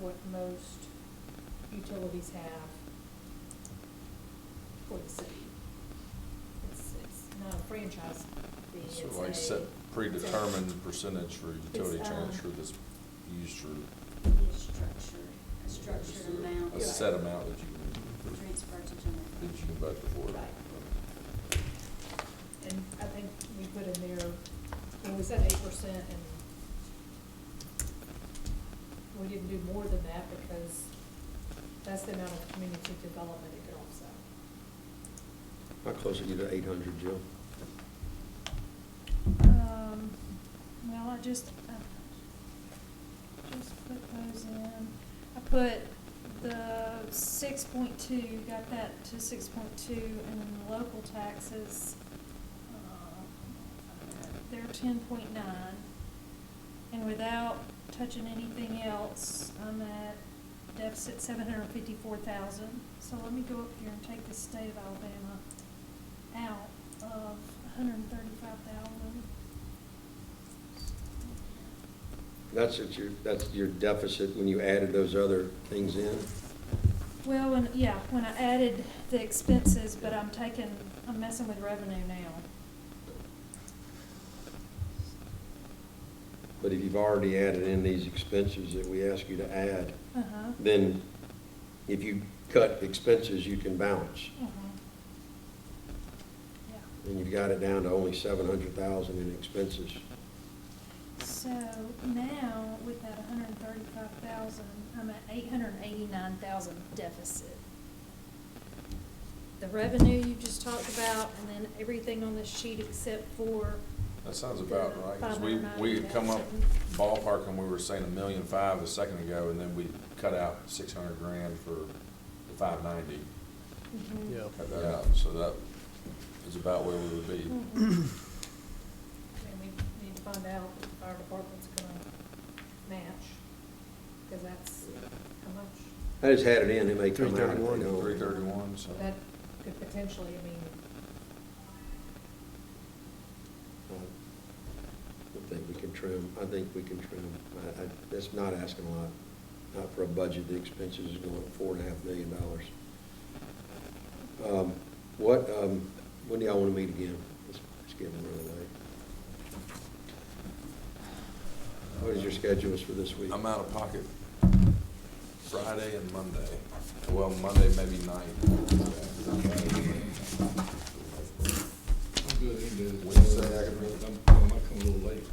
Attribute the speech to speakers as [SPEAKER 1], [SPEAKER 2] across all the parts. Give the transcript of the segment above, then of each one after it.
[SPEAKER 1] what most utilities have for the city. It's, it's not a franchise fee, it's
[SPEAKER 2] So I
[SPEAKER 1] a-
[SPEAKER 2] set
[SPEAKER 1] it's a-
[SPEAKER 2] predetermined percentage for utility
[SPEAKER 1] It's, uh,
[SPEAKER 2] transfer that's used for
[SPEAKER 3] Be a structured, a structured amount.
[SPEAKER 2] a set amount that you can,
[SPEAKER 3] Transfer to general.
[SPEAKER 2] that you can budget for.
[SPEAKER 1] Right. And I think we put in there, when we said eight percent and we didn't do more than that because that's the amount of community development it could offset.
[SPEAKER 4] How close are you to eight hundred, Jill?
[SPEAKER 5] Um, well, I just, I just put those in. I put the six point two, got that to six point two, and then the local taxes, uh, they're ten point nine. And without touching anything else, I'm at deficit seven hundred and fifty-four thousand. So let me go up here and take the state of Alabama out of hundred and thirty-five thousand.
[SPEAKER 4] That's at your, that's your deficit when you added those other things in?
[SPEAKER 5] Well, when, yeah, when I added the expenses, but I'm taking, I'm messing with revenue now.
[SPEAKER 4] But if you've already added in these expenses that we ask you to add,
[SPEAKER 5] Uh-huh.
[SPEAKER 4] then if you cut expenses, you can balance.
[SPEAKER 5] Uh-huh. Yeah,
[SPEAKER 4] And you've got it down to only seven hundred thousand in expenses.
[SPEAKER 5] so now with that hundred and thirty-five thousand, I'm at eight hundred and eighty-nine thousand deficit. The revenue you just talked about, and then everything on this sheet except for
[SPEAKER 2] That sounds about
[SPEAKER 5] The
[SPEAKER 2] right, 'cause we, we had come up
[SPEAKER 5] 590,000.
[SPEAKER 2] ballpark and we were saying a million five a second ago, and then we cut out six hundred grand for the five ninety.
[SPEAKER 5] Yeah.
[SPEAKER 2] Cut that out, so that is about where we would be.
[SPEAKER 1] Mm-hmm. And we need to find out if our department's gonna match, because that's how much.
[SPEAKER 4] I just had it in, it may come out. if they
[SPEAKER 6] 331.
[SPEAKER 4] don't.
[SPEAKER 2] Three thirty-one, so.
[SPEAKER 1] That could potentially, I mean,
[SPEAKER 4] I think we can trim, I think we can trim. I, I, that's not asking a lot, not for a budget, the expenses is going at four and a half million dollars. Um, What, um, when do y'all want to meet again? It's it's getting really late. What is your schedules for this week?
[SPEAKER 2] I'm out of pocket Friday and Monday. Well, Monday maybe night.
[SPEAKER 6] I'm good, any day.
[SPEAKER 2] Wednesday, I can make it.
[SPEAKER 6] I'm, I might come a little late.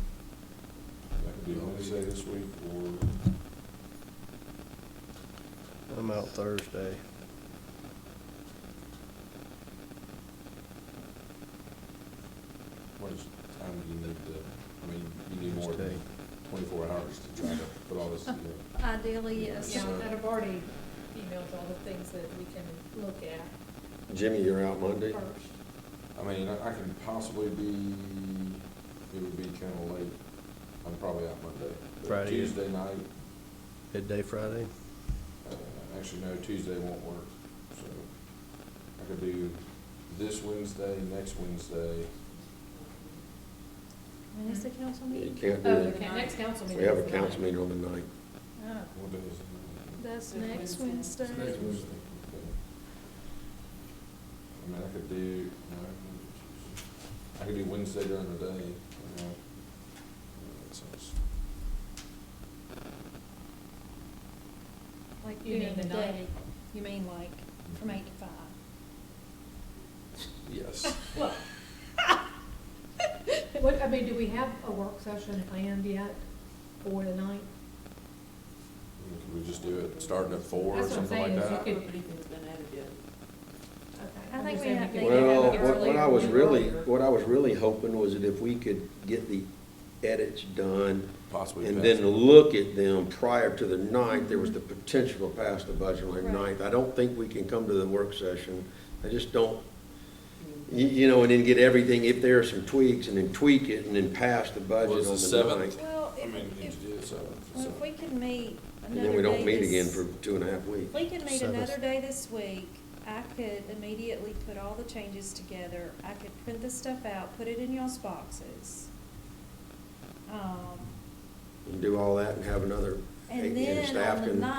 [SPEAKER 2] I could do Wednesday this week or
[SPEAKER 7] I'm out Thursday.
[SPEAKER 2] what is, time do you need to, I mean, you need more than
[SPEAKER 7] Tuesday.
[SPEAKER 2] twenty-four hours to try to put all this together.
[SPEAKER 5] Ideally, yes.
[SPEAKER 1] yeah,
[SPEAKER 2] So-
[SPEAKER 1] and I've already emailed all the things that we can look at
[SPEAKER 4] Jimmy, you're out Monday?
[SPEAKER 1] first.
[SPEAKER 2] I mean, I I can possibly be, it would be kinda late. I'm probably out Monday. But
[SPEAKER 7] Friday.
[SPEAKER 2] Tuesday night,
[SPEAKER 7] Midday Friday?
[SPEAKER 2] uh, actually, no, Tuesday won't work, so I could do this Wednesday, next Wednesday.
[SPEAKER 5] When is the council
[SPEAKER 4] You
[SPEAKER 5] meeting?
[SPEAKER 4] can't do
[SPEAKER 1] Oh,
[SPEAKER 4] it.
[SPEAKER 1] okay, next council meeting.
[SPEAKER 4] We have a
[SPEAKER 1] is the
[SPEAKER 4] council
[SPEAKER 1] ninth.
[SPEAKER 4] meeting on the ninth.
[SPEAKER 5] Oh,
[SPEAKER 2] What day is it?
[SPEAKER 5] that's
[SPEAKER 3] Next
[SPEAKER 5] next
[SPEAKER 3] Wednesday.
[SPEAKER 5] Wednesday.
[SPEAKER 6] Next Wednesday.
[SPEAKER 2] Okay. I mean, I could do, no, I could do Wednesday during the day, you know. Uh, That sounds-
[SPEAKER 5] Like
[SPEAKER 1] You mean
[SPEAKER 5] during the
[SPEAKER 1] the night?
[SPEAKER 5] day, you mean like from eight to five?
[SPEAKER 2] Yes.
[SPEAKER 1] Well, What, I mean, do we have a work session planned yet for the night?
[SPEAKER 2] Could we just do it starting at four or
[SPEAKER 1] That's what I'm
[SPEAKER 2] something like
[SPEAKER 1] saying, is
[SPEAKER 2] that?
[SPEAKER 1] you could-
[SPEAKER 3] Anything's been added yet.
[SPEAKER 5] I think we have to- They can have
[SPEAKER 4] Well,
[SPEAKER 5] it
[SPEAKER 4] what, what I was really, what
[SPEAKER 1] What
[SPEAKER 4] I was really hoping was that if we could get the edits done
[SPEAKER 2] Possibly.
[SPEAKER 4] and
[SPEAKER 2] pass
[SPEAKER 4] then
[SPEAKER 2] it.
[SPEAKER 4] look at them prior to the ninth, there was the potential to pass the budget on the
[SPEAKER 5] Right.
[SPEAKER 4] ninth. I don't think we can come to the work session. I just don't, you, you know, and then get everything, if there are some tweaks, and then tweak it, and then pass the
[SPEAKER 2] Well,
[SPEAKER 4] budget
[SPEAKER 2] it's
[SPEAKER 4] on
[SPEAKER 2] the
[SPEAKER 4] the
[SPEAKER 2] seventh.
[SPEAKER 4] ninth.
[SPEAKER 5] Well,
[SPEAKER 2] I
[SPEAKER 5] if,
[SPEAKER 2] mean, you
[SPEAKER 5] if,
[SPEAKER 2] could do it seventh,
[SPEAKER 5] well,
[SPEAKER 2] so.
[SPEAKER 5] if we could
[SPEAKER 4] And
[SPEAKER 5] meet another day.
[SPEAKER 4] then we don't meet again
[SPEAKER 5] this-
[SPEAKER 4] for two and a half
[SPEAKER 5] If
[SPEAKER 4] weeks.
[SPEAKER 5] we could meet
[SPEAKER 7] Seventh.
[SPEAKER 5] another day this week, I could immediately put all the changes together. I could print the stuff out, put it in y'all's boxes. Um,
[SPEAKER 4] And do all that and have another,
[SPEAKER 5] And
[SPEAKER 4] and
[SPEAKER 5] then
[SPEAKER 4] staff
[SPEAKER 5] on the
[SPEAKER 4] can.
[SPEAKER 5] ninth,